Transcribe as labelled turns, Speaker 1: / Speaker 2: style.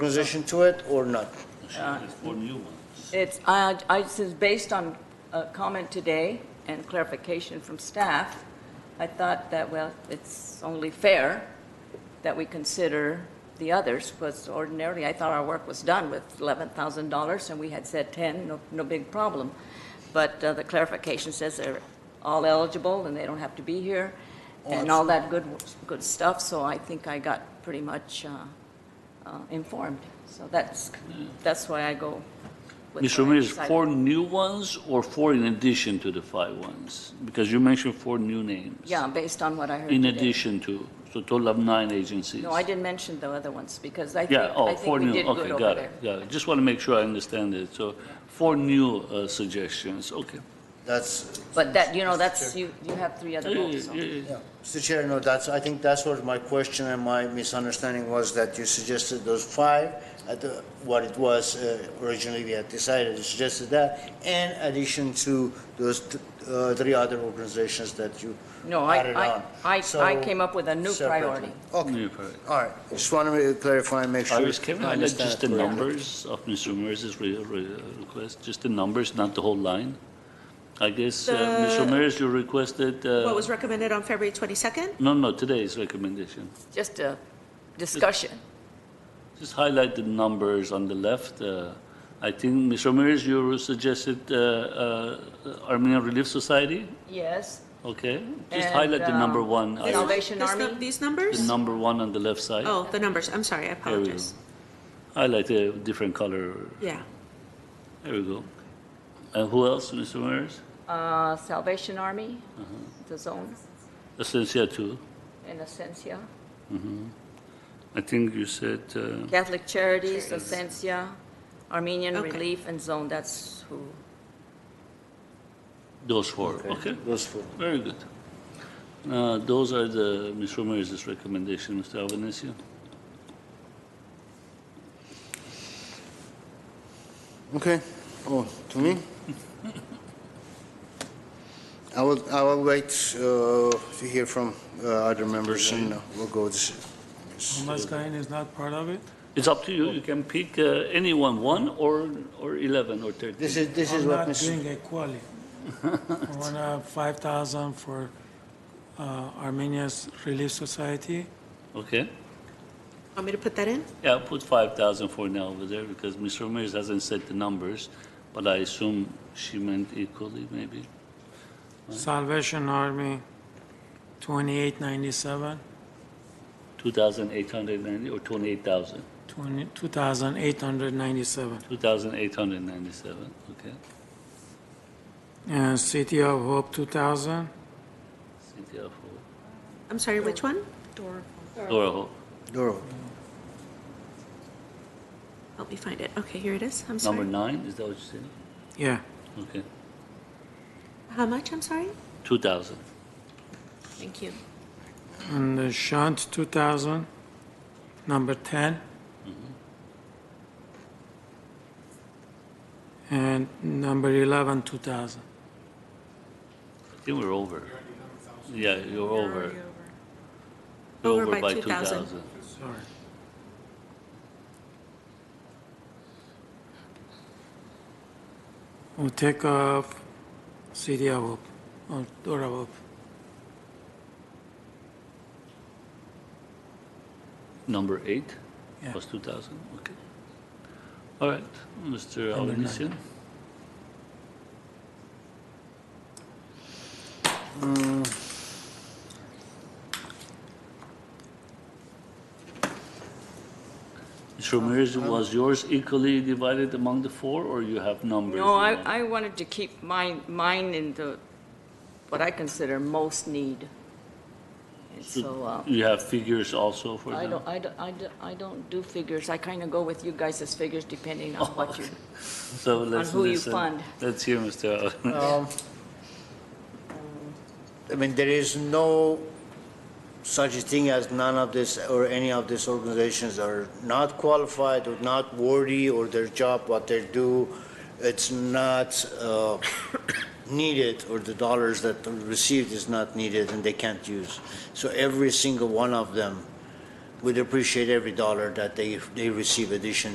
Speaker 1: position to it or not?
Speaker 2: Uh,
Speaker 3: There's four new ones.
Speaker 2: It's, I, I, this is based on a comment today and clarification from staff. I thought that, well, it's only fair that we consider the others, because ordinarily, I thought our work was done with $11,000, and we had said 10, no, no big problem. But uh, the clarification says they're all eligible, and they don't have to be here, and all that good, good stuff, so I think I got pretty much uh, uh, informed. So that's, that's why I go
Speaker 3: Mr.
Speaker 2: with what I
Speaker 3: Ramirez,
Speaker 2: decided.
Speaker 3: four new ones or four in addition to the five ones? Because you mentioned four new names.
Speaker 2: Yeah, based on what I heard
Speaker 3: In
Speaker 2: today.
Speaker 3: addition to, so total of nine agencies.
Speaker 2: No, I didn't mention the other ones, because I think,
Speaker 3: Yeah,
Speaker 2: I
Speaker 3: oh,
Speaker 2: think
Speaker 3: four
Speaker 2: we
Speaker 3: new,
Speaker 2: did
Speaker 3: okay,
Speaker 2: good over
Speaker 3: got it,
Speaker 2: there.
Speaker 3: got it. Just want to make sure I understand it. So four new uh, suggestions, okay.
Speaker 1: That's,
Speaker 2: But that, you know, that's, you, you have three other
Speaker 3: Yeah,
Speaker 2: votes,
Speaker 3: yeah,
Speaker 2: so.
Speaker 3: yeah, yeah.
Speaker 1: yeah. Mr. Chair, no, that's, I think that's what my question and my misunderstanding was that you suggested those five at the, what it was uh, originally we had decided, you suggested that, in addition to those th- uh, three other organizations that you
Speaker 2: No, I-
Speaker 1: added
Speaker 2: I-
Speaker 1: on.
Speaker 2: I-
Speaker 1: So,
Speaker 2: I came up with a new
Speaker 1: separately.
Speaker 2: priority.
Speaker 1: Okay,
Speaker 3: New priority.
Speaker 1: all right, just want to clarify and make sure.
Speaker 3: Iris, can I let
Speaker 1: understand
Speaker 3: just the
Speaker 1: correctly.
Speaker 3: numbers of Mr. Ramirez's re- re- request? Just the numbers, not the whole line? I guess, uh, Mr.
Speaker 4: The-
Speaker 3: Ramirez, you requested, uh,
Speaker 4: What was recommended on February 22nd?
Speaker 3: no, no, today's recommendation.
Speaker 2: Just a discussion.
Speaker 3: Just highlight the numbers on the left. Uh, I think, Ms. Ramirez, you suggested uh, uh, Armenian Relief Society,
Speaker 2: Yes,
Speaker 3: okay? Just
Speaker 2: And,
Speaker 3: highlight the number
Speaker 2: um,
Speaker 3: one,
Speaker 2: this-
Speaker 3: item.
Speaker 2: Salvation
Speaker 4: This nu-
Speaker 2: Army?
Speaker 4: These
Speaker 3: the
Speaker 4: numbers?
Speaker 3: number one on the left side.
Speaker 4: Oh, the numbers, I'm sorry, I
Speaker 3: There we go.
Speaker 4: apologize.
Speaker 3: Highlight a different color,
Speaker 4: Yeah,
Speaker 3: there we go. And who else, Mr. Ramirez?
Speaker 2: uh, Salvation Army,
Speaker 3: Uh-huh.
Speaker 2: the zone,
Speaker 3: Essentia two.
Speaker 2: in Ascensia.
Speaker 3: I think you said, uh,
Speaker 2: Catholic Charities, Ascensia, Armenian
Speaker 4: Okay.
Speaker 2: Relief and Zone, that's who.
Speaker 3: those four, okay?
Speaker 1: Those four.
Speaker 3: Very good. Uh, Those are the, Ms. Ramirez's recommendation, Mr. Albanese.
Speaker 1: Okay. Oh, to me? I will, I will wait uh, to hear from uh, other members and uh, we'll go this.
Speaker 5: Unless Kahin is not part of it?
Speaker 3: It's up to you, you can pick uh, anyone, one or, or 11 or 13.
Speaker 1: This is, this is what Mr.
Speaker 5: I'm not doing equally. I want to 5,000 for uh, Armenia's Relief Society.
Speaker 3: Okay,
Speaker 4: want me to put that in?
Speaker 3: yeah, I'll put 5,000 for now over there because Ms. Ramirez hasn't said the numbers, but I assume she meant equally, maybe.
Speaker 5: Salvation Army, 2897,
Speaker 3: 2,890 or 28,000?
Speaker 5: 20 2,897.
Speaker 3: 2,897, okay.
Speaker 5: And City of Hope, 2,000.
Speaker 3: City of Hope,
Speaker 4: I'm sorry, which one?
Speaker 3: Dora Hope.
Speaker 1: Doro.
Speaker 4: Help me find it. Okay, here it is, I'm
Speaker 3: Number
Speaker 4: sorry.
Speaker 3: nine, is that what you said?
Speaker 5: Yeah.
Speaker 3: Okay,
Speaker 4: How much, I'm sorry?
Speaker 3: 2,000.
Speaker 4: Thank you.
Speaker 5: And the Shunt, 2,000. Number 10. And number 11, 2,000.
Speaker 3: I think we're over. Yeah, you're over. You're
Speaker 4: Over by 2,000.
Speaker 5: Sorry. We'll take off City of Hope, or Dora Hope.
Speaker 3: Number eight
Speaker 5: Yeah.
Speaker 3: was 2,000, okay. All right, Mr. Albanesian. Uh, Mr. Ramirez, was yours equally divided among the four, or you have numbers?
Speaker 2: No, I,
Speaker 3: now?
Speaker 2: I wanted to keep mine, mine in the, what I consider most need. And so, uh,
Speaker 3: You have figures also for
Speaker 2: I
Speaker 3: them?
Speaker 2: don't, I don't, I don't, I don't do figures. I kind of go with you guys' as figures depending on what you,
Speaker 3: So let's
Speaker 2: who you
Speaker 3: listen.
Speaker 2: fund.
Speaker 3: Let's hear, Mr. Albanesian.
Speaker 1: Um, I mean, there is no such a thing as none of this or any of these organizations are not qualified or not worthy or their job, what they do, it's not uh, needed or the dollars that are received is not needed and they can't use. So every single one of them we'd appreciate every dollar that they, they receive addition